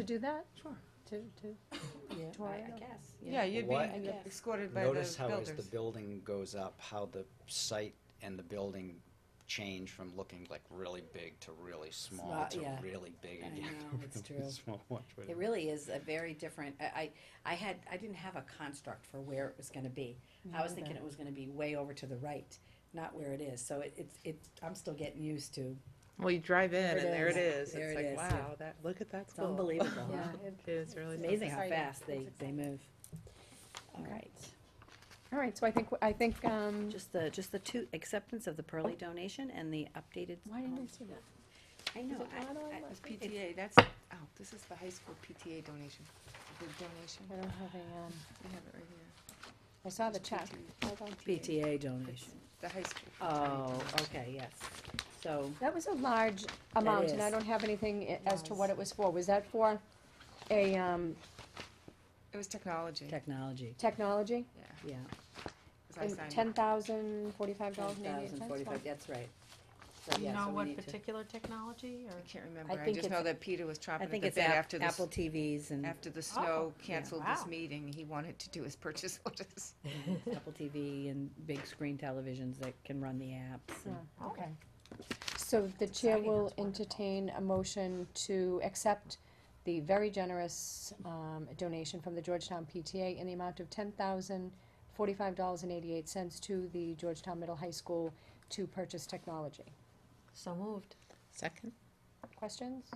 to do that? Sure. To, to, Yeah, I- I Tornado. guess. Yeah, you'd be What- I guess. escorted by the Notice builders. how as the building goes up, how the site and the building change from looking like really big to really small Small, to yeah. really big I again. know, it's Really true. small. Watch what It it- really is a very different, I, I I had, I didn't have a construct for where it was gonna be. I was thinking it was gonna be way over to the right, not where it is, so it, it's, it, I'm still getting used to, Well, you drive in There and it there it is. is. There It's it like, is, yeah. wow, that, look at that it's school. unbelievable, yeah. huh? it- It is really It's amazing how exciting. fast they, It's they exciting. move. All Okay. right, All right, so I think, I think, um, just the, just the two, acceptance of the Pearly donation and the updated. why didn't um, I see that? I is know, it I, not on I- my- it's- It's PTA, that's, oh, this is the high school PTA donation, the donation, I don't have a, um, we have it right here. I saw the It's check. PTA. Hold on. PTA donation. The high school. PTA Oh, donation. okay, yes, so, That was a large amount, and I is. don't have anything i- as to Yes. what it was for. Was that for a, um, It was technology, yeah, technology, technology? 'cause yeah. I signed. Ten thousand, forty-five dollars and eighty-eight 10,045, cents? that's right. So, Do yeah, you know so we what need to- particular technology I or? can't I remember, I think just it's- know that Peter was I chopping at think the it's bit after App- the, s- Apple TVs and after the snow yeah, canceled this wow. meeting, he wanted to do his purchase orders. Apple TV and big screen televisions that can run the apps. and- Okay. So the chair exciting, will that's wonderful. entertain a motion to accept the very generous um, donation from the Georgetown PTA in the amount of ten thousand forty-five dollars and eighty-eight cents to the Georgetown Middle High School to purchase technology. So moved. Second? Questions?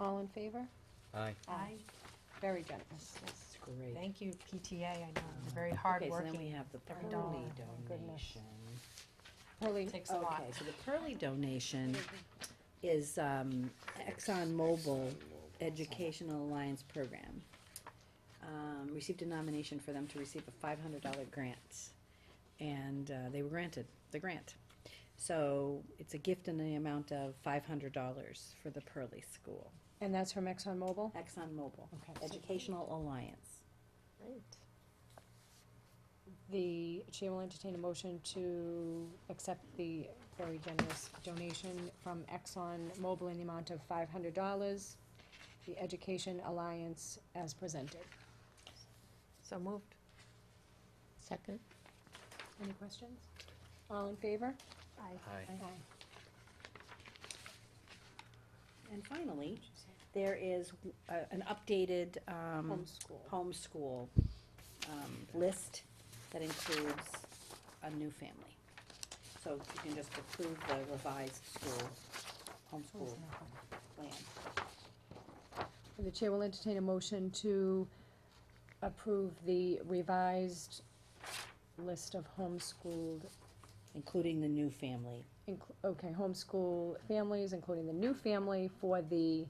All in favor? Aye. Aye. Very generous. That's great. Thank you, PTA. I know, they're very Okay, so then we hardworking. have the Every Pearly dollar. Oh, my goodness. donation. Pearly, Takes a lot. Okay, so the Pearly donation is um, ExxonMobil Educational Alliance Program. Um, Received a nomination for them to receive a five hundred dollar grant, and uh, they were granted the grant. So it's a gift in the amount of five hundred dollars for the Pearly School, and that's from ExxonMobil? ExxonMobil Okay. Educational Alliance. The chair will entertain a motion to accept the very generous donation from Exxon Mobil in the amount of five hundred dollars, the Education Alliance as presented. So moved. Second. Any questions? All in favor? Aye. And finally, there is uh, an updated um, Homeschool. homeschool um, list that includes a new family. So you can just approve the revised school, homeschool plan. The chair will entertain a motion to approve the revised list of homeschooled, Including the new family, inc- okay, homeschool families, including the new family for the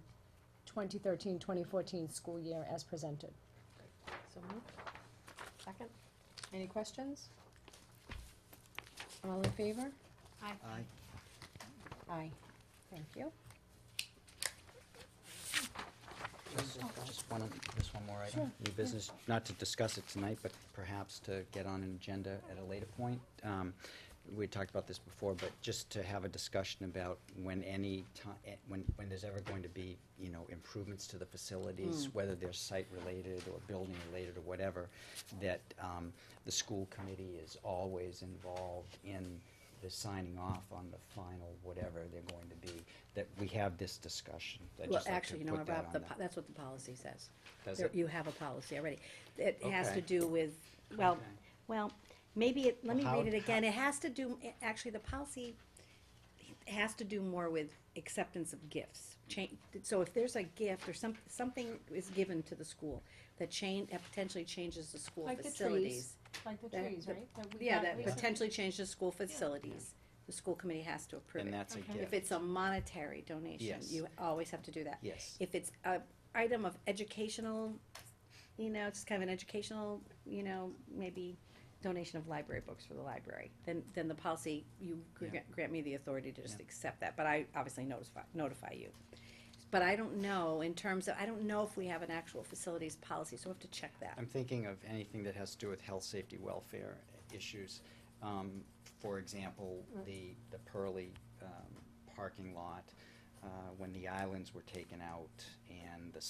2013-2014 school year as presented. So moved. Second. Any questions? All in favor? Aye. Aye. Thank you. Just one, just one more Sure. item. New business, not to discuss it tonight, but perhaps to get on an agenda at a later point. Um, We talked about this before, but just to have a discussion about when any time, when, when there's ever going to be, you know, improvements to the facilities, Hmm. whether they're site-related or building-related or whatever, that um, the school committee is always involved in the signing off on the final whatever they're going to be, that we have this discussion. I'd Well, just like to actually, you know, put that Rob, on the, the- po- that's what the policy says. Does There- it? You have a policy already. It has to Okay. do with, well, Okay. well, maybe, it- let me Well, read it how- again. It has to do, it- actually, the policy has to do more with acceptance of gifts. Change, so if there's a gift or some, something is given to the school that change, that potentially changes the school Like the trees. facilities. Like the That- trees, the- right? we Yeah, got that recently? potentially changes school facilities. The school committee has to approve it. And that's a gift. If it's a monetary donation, Yes. you always have to do that. Yes. If it's a item of educational, you know, just kind of an educational, you know, maybe donation of library books for the library, then, then the policy, you gr- Yeah. grant me the authority to just Yeah. accept that, but I obviously notify, notify you. But I don't know in terms of, I don't know if we have an actual facilities policy, so we'll have to check that. I'm thinking of anything that has to do with health, safety, welfare issues. Um, For example, Mm. the, the Pearly um, parking lot, uh, when the islands were taken out and the